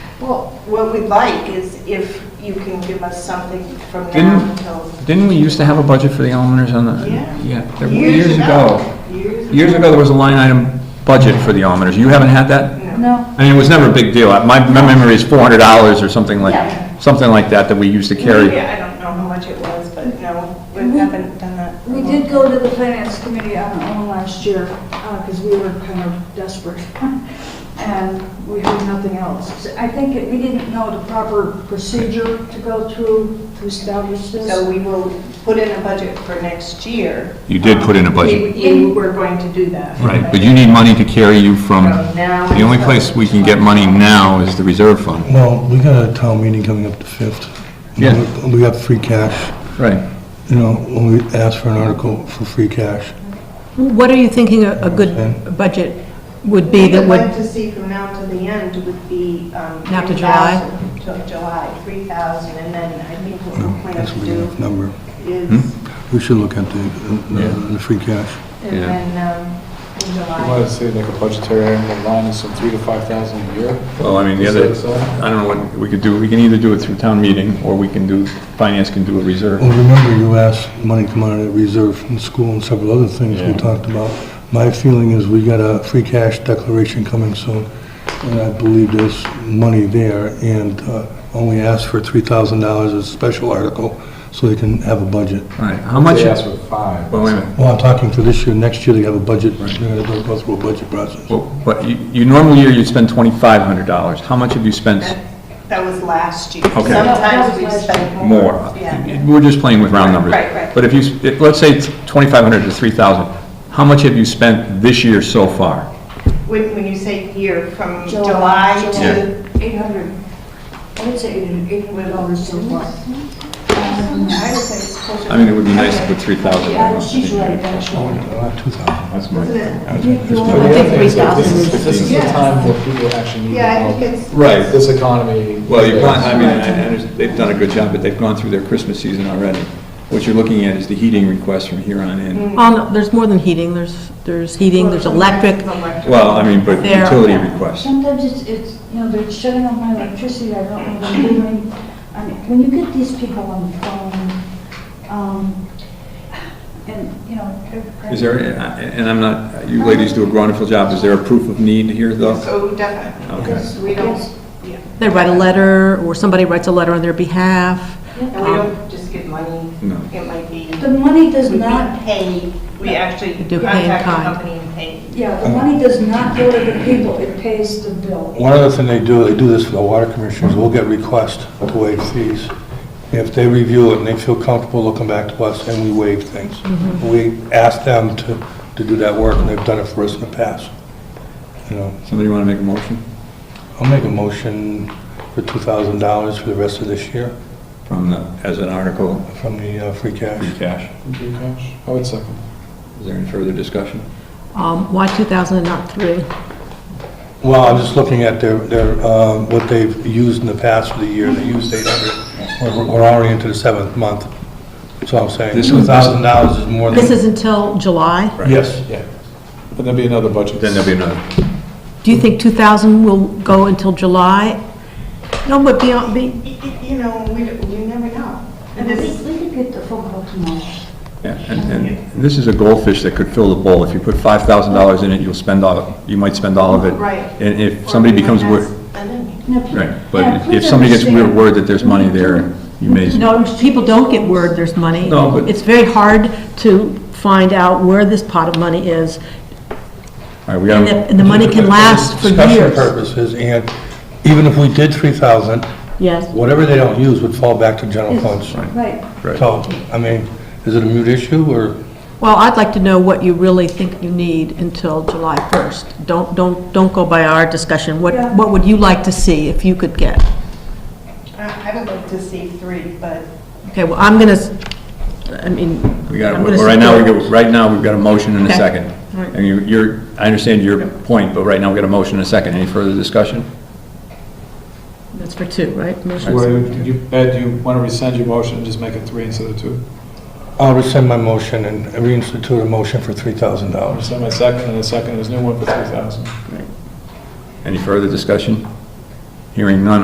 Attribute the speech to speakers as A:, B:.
A: Well, what we'd like is if you can give us something from
B: Didn't-
A: now until.
B: Didn't we used to have a budget for the almoners on the?
A: Yeah.
B: there- years ago. Years ago, there was a line item budget for the almoners. You haven't had that?
A: No.
C: No,
B: I mean, it was never a big deal. My, my memory is four hundred dollars or something
C: Yeah.
B: like, something like that that we used to
A: Maybe,
B: carry.
A: I don't know how much it was, but no, we
C: We-
A: haven't done that. for a
C: we
A: while.
C: did go to the finance committee on our own last year, because we were kind of desperate, and we heard nothing else. So I think it- we didn't know the proper procedure to go through to establish
A: So
C: this.
A: we will put in a budget for next year. Um,
B: You did put in a budget.
A: We- we We're going to do that.
B: Right, but you need money to carry you from,
A: From now
B: the only place we can get money now is the reserve fund.
D: Well, we got a town meeting coming up the 5th.
B: Yeah.
D: We got free cash,
B: Right.
D: you know, when we asked for an article for free cash.
E: What are you thinking a a
D: Okay.
E: good budget would be
A: We'd
E: that
A: like
E: would,
A: to see from now to the end would be. um,
E: Now to July?
A: 3,000 Till July, 3,000, and then I think what
D: No,
A: we plan
D: That's a
A: to
D: big
A: do
D: enough number.
B: Hmm?
A: is,
D: We should look at the,
B: Yeah.
D: the- the free cash.
A: and
B: Yeah.
A: then um, in
F: You want
A: July.
F: to say like a budgetary annual line is some three to five thousand a year?
B: Well, I mean, the
F: Is
B: other,
F: that so?
B: I don't know what, we could do, we can either do it through town meeting, or we can do, finance can do a reserve.
D: Well, remember you asked money to come out of that reserve from school and several other things we
B: Yeah.
D: talked about. My feeling is we got a free cash declaration coming soon, and I believe there's money there, and uh, only asked for $3,000 as a special article, so they can have a budget.
B: All right, how much?
F: They asked for five.
B: Well, wait a minute.
D: Well, I'm talking for this year, next year they have a budget, they're gonna go through a budget process.
B: Well, But you, you normal year, you'd spend twenty-five hundred dollars. How much have you spent
A: That- That was last year.
B: Okay.
A: Sometimes we spend more.
B: more?
A: Yeah.
B: We're just playing with round numbers.
A: Right, right.
B: But if you, s- if, let's say twenty-five hundred to three thousand, how much have you spent this year so far?
A: When, when you say year, from
C: July,
A: July
B: July.
A: to,
C: 800, I would say 800 dollars so far.
A: I would say it's closer.
B: I mean, it would be nice to put three thousand.
C: Yeah, she's right, actually.
D: Two thousand.
B: That's my.
F: But the
E: I think
F: other thing is that
E: 3,000
F: This is this is the
A: Yes.
F: time where people actually need
A: Yeah, I
F: help.
A: think it's.
B: Right.
F: This economy.
B: Well, you've gone, I mean, I- I under- they've done a good job, but they've gone through their Christmas season already. What you're looking at is the heating request from here on
A: Mm.
B: in.
E: oh, no, there's more than heating, there's, there's heating, there's electric.
B: Well, I mean, but
E: There.
B: utility requests.
C: Sometimes it's, it's, you know, they're shutting off my electricity, I don't know what I'm doing. I mean, when you get these people on the phone, um, and, you know. every-
B: Is there, and I'm not, you ladies do a wonderful job, is there a proof of need here, though?
A: So definitely,
B: Okay.
A: because we don't,
C: Yes.
A: yeah,
E: They write a letter, or somebody writes a letter on their behalf.
A: and we don't just give money.
B: No.
A: It might be,
C: The money does
A: we
C: not,
A: pay, we actually
E: do pay in
A: contact the
E: kind.
A: company and pay.
C: yeah, the money does not go to the people, it pays the bill.
D: One other thing they do, they do this for the water commissioners, we'll get requests to waive fees. If they review it and they feel comfortable, they'll come back to us and we waive things. We ask them to, to do that work and they've done it for us in the past. You know,
B: Somebody want to make a motion
D: I'll make a motion for two thousand dollars for the rest of this year
B: from the, as an article,
D: from the uh, free
B: free
D: cash.
B: cash?
F: I would second.
B: Is there any further discussion?
E: Um, Why 2,000 and not 3?
D: Well, I'm just looking at their, their, uh, what they've used in the past for the year, they used 800. We're we're already into the seventh month, that's all I'm saying.
B: This is-
D: $2,000 is more than...
E: This is until July?
D: Yes,
F: Yeah. But there'll be another budget.
B: Then there'll be another.
E: Do you think 2,000 will go until July? No, but beyond, be-
A: Y- y- You know, we, you never know.
C: And we,
A: This-
C: we could get the phone call tomorrow.
B: Yeah, And, and this is a goldfish that could fill the bowl. If you put five thousand dollars in it, you'll spend all, you might spend all of it.
A: Right.
B: And if somebody
A: Or we might
B: becomes,
A: not
B: wor-
A: spend any.
C: Now, pe-
B: right,
C: yeah,
B: but if- if
C: please
B: somebody gets word
C: understand.
B: word that there's money there, you may.
E: no, people don't get word there's money.
B: No, but-
E: It's very hard to find out where this pot of money is,
B: All right, we
E: and
B: gotta,
E: the- and the money can last for
D: discussion
E: years.
D: purposes, and even if we did 3,000,
E: Yes.
D: whatever they don't use would fall back to general
C: Yes.
D: funds.
C: Right,
B: Right.
D: So, I mean, is it a mute issue, or,
E: Well, I'd like to know what you really think you need until July 1st. Don't, don't, don't go by our discussion. What,
C: Yeah.
E: what would you like to see if you could get?
A: I I would like to see three, but
E: Okay, well, I'm gonna, s- I mean.
B: we
E: I'm
B: got,
E: gonna
B: right now, we
E: support-
B: go, right now, we've got a motion and a
E: Okay.
B: second.
E: All right.
B: And you- you're, I understand your point, but right now, we got a motion and a second. Any further discussion?
E: That's for two, right?
F: So what do you- you, Ed, you want to rescind your motion and just make it three instead of two?
D: I'll rescind my motion and reinstitute a motion for $3,000.
F: Rescind my second and a second, there's no one for three thousand.
B: Any further discussion? Hearing none,